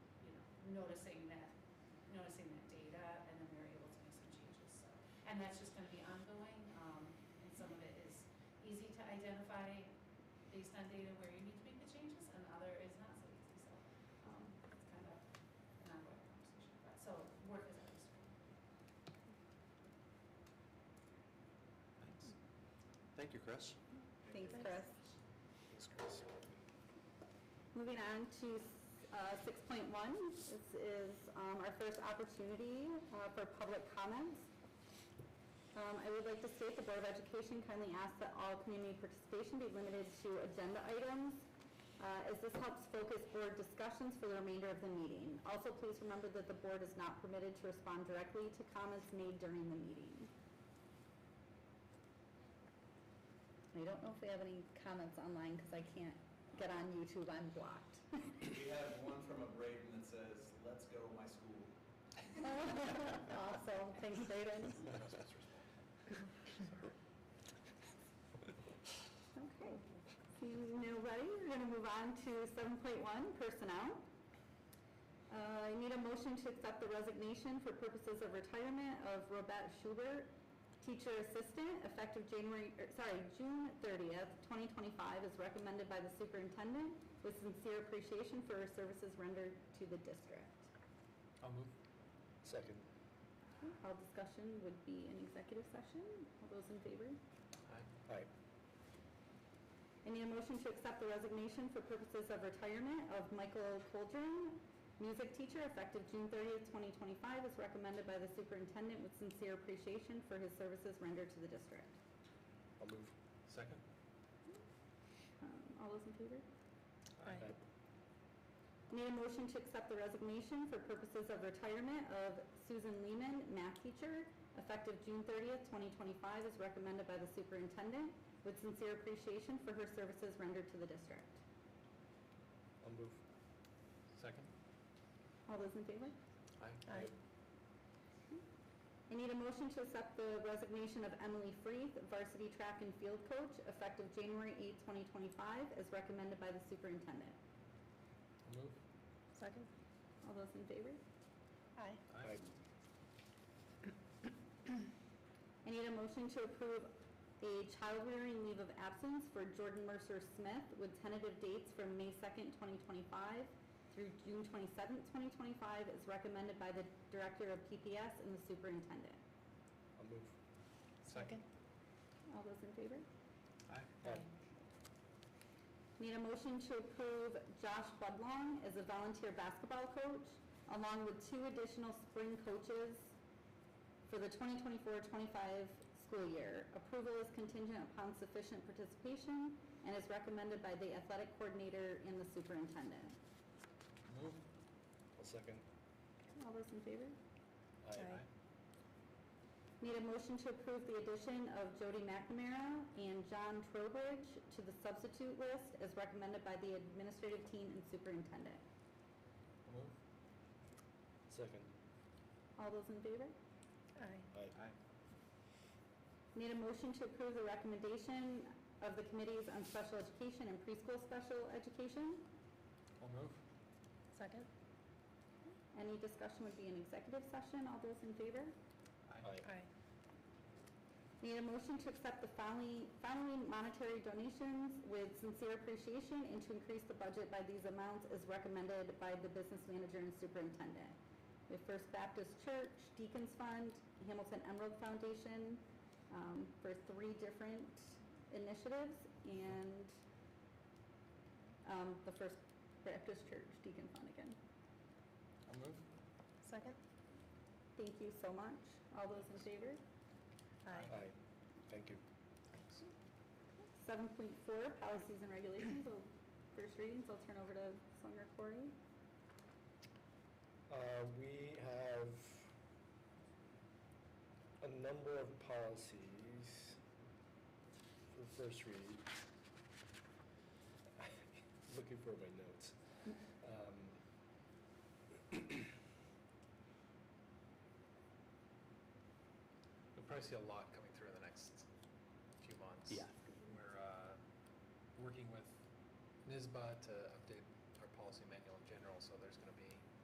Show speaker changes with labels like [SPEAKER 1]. [SPEAKER 1] noticing that, noticing that data, and then we were able to make some changes, so. And that's just gonna be ongoing, um, and some of it is easy to identify based on data where you need to make the changes, and other is not so easy, so, um, it's kind of an ongoing conversation, but, so work is always.
[SPEAKER 2] Thanks. Thank you, Chris.
[SPEAKER 3] Thanks, Chris.
[SPEAKER 2] Thanks, Chris.
[SPEAKER 3] Moving on to uh, 6.1, this is um, our first opportunity uh, for public comments. Um, I would like to state the Board of Education kindly asks that all community participation be limited to agenda items, uh, as this helps focus board discussions for the remainder of the meeting. Also, please remember that the board is not permitted to respond directly to comments made during the meeting. I don't know if we have any comments online because I can't get on YouTube, I'm blocked.
[SPEAKER 4] We have one from a Braden that says, "Let's go, my school."
[SPEAKER 3] Awesome, thanks, Brayden. Okay, seeing nobody, we're going to move on to 7.1, personnel. Uh, I need a motion to accept the resignation for purposes of retirement of Robette Schubert, teacher assistant, effective January, er, sorry, June 30th, 2025, as recommended by the superintendent, with sincere appreciation for her services rendered to the district.
[SPEAKER 2] I'll move. Second.
[SPEAKER 3] All discussion would be an executive session. All those in favor?
[SPEAKER 2] Aye. Aye.
[SPEAKER 3] I need a motion to accept the resignation for purposes of retirement of Michael Coldren, music teacher, effective June 30th, 2025, as recommended by the superintendent with sincere appreciation for his services rendered to the district.
[SPEAKER 2] I'll move. Second.
[SPEAKER 3] Um, All those in favor?
[SPEAKER 2] Aye.
[SPEAKER 3] I Need a motion to accept the resignation for purposes of retirement of Susan Lehman, math teacher, effective June 30th, 2025, as recommended by the superintendent, with sincere appreciation for her services rendered to the district.
[SPEAKER 2] I'll move. Second.
[SPEAKER 3] All those in favor?
[SPEAKER 2] Aye.
[SPEAKER 3] Aye. I need a motion to accept the resignation of Emily Freeth, varsity track and field coach, effective January 8th, 2025, as recommended by the superintendent.
[SPEAKER 2] I'll move.
[SPEAKER 3] Second. All those in favor? Aye.
[SPEAKER 2] Aye.
[SPEAKER 3] I need a motion to approve a child rearing leave of absence for Jordan Mercer Smith with tentative dates from May 2nd, 2025 through June 27th, 2025, as recommended by the Director of PPS and the Superintendent.
[SPEAKER 2] I'll move. Second.
[SPEAKER 3] All those in favor?
[SPEAKER 2] Aye.
[SPEAKER 3] Need a motion to approve Josh Budlong as a volunteer basketball coach, along with two additional spring coaches for the 2024-25 school year. Approval is contingent upon sufficient participation and is recommended by the athletic coordinator and the superintendent.
[SPEAKER 2] Move. I'll second.
[SPEAKER 3] All those in favor?
[SPEAKER 2] Aye.
[SPEAKER 3] Need a motion to approve the addition of Jody McNamara and John Trowbridge to the substitute list as recommended by the administrative team and superintendent.
[SPEAKER 2] I'll move. Second.
[SPEAKER 3] All those in favor?
[SPEAKER 2] Aye. Aye.
[SPEAKER 3] Need a motion to approve the recommendation of the committees on special education and preschool special education.
[SPEAKER 2] I'll move.
[SPEAKER 5] Second?
[SPEAKER 3] Any discussion would be an executive session. All those in favor?
[SPEAKER 2] Aye.
[SPEAKER 5] Aye.
[SPEAKER 3] Need a motion to accept the following, following monetary donations with sincere appreciation and to increase the budget by these amounts as recommended by the business manager and superintendent. We have First Baptist Church, Deacons Fund, Hamilton Emerald Foundation, um, for three different initiatives and, um, the First Baptist Church Deacon Fund again.
[SPEAKER 2] I'll move.
[SPEAKER 5] Second?
[SPEAKER 3] Thank you so much. All those in favor?
[SPEAKER 2] Thank you.
[SPEAKER 3] 7.4, policies and regulations, So first readings, I'll turn over to Selectman Corey.
[SPEAKER 6] Uh, We have a number of policies for first read. Looking for my notes. Um,
[SPEAKER 7] You'll probably see a lot coming through in the next few months.
[SPEAKER 6] Yeah.
[SPEAKER 7] We're uh, working with NISBA to update our policy manual in general, so there's going to be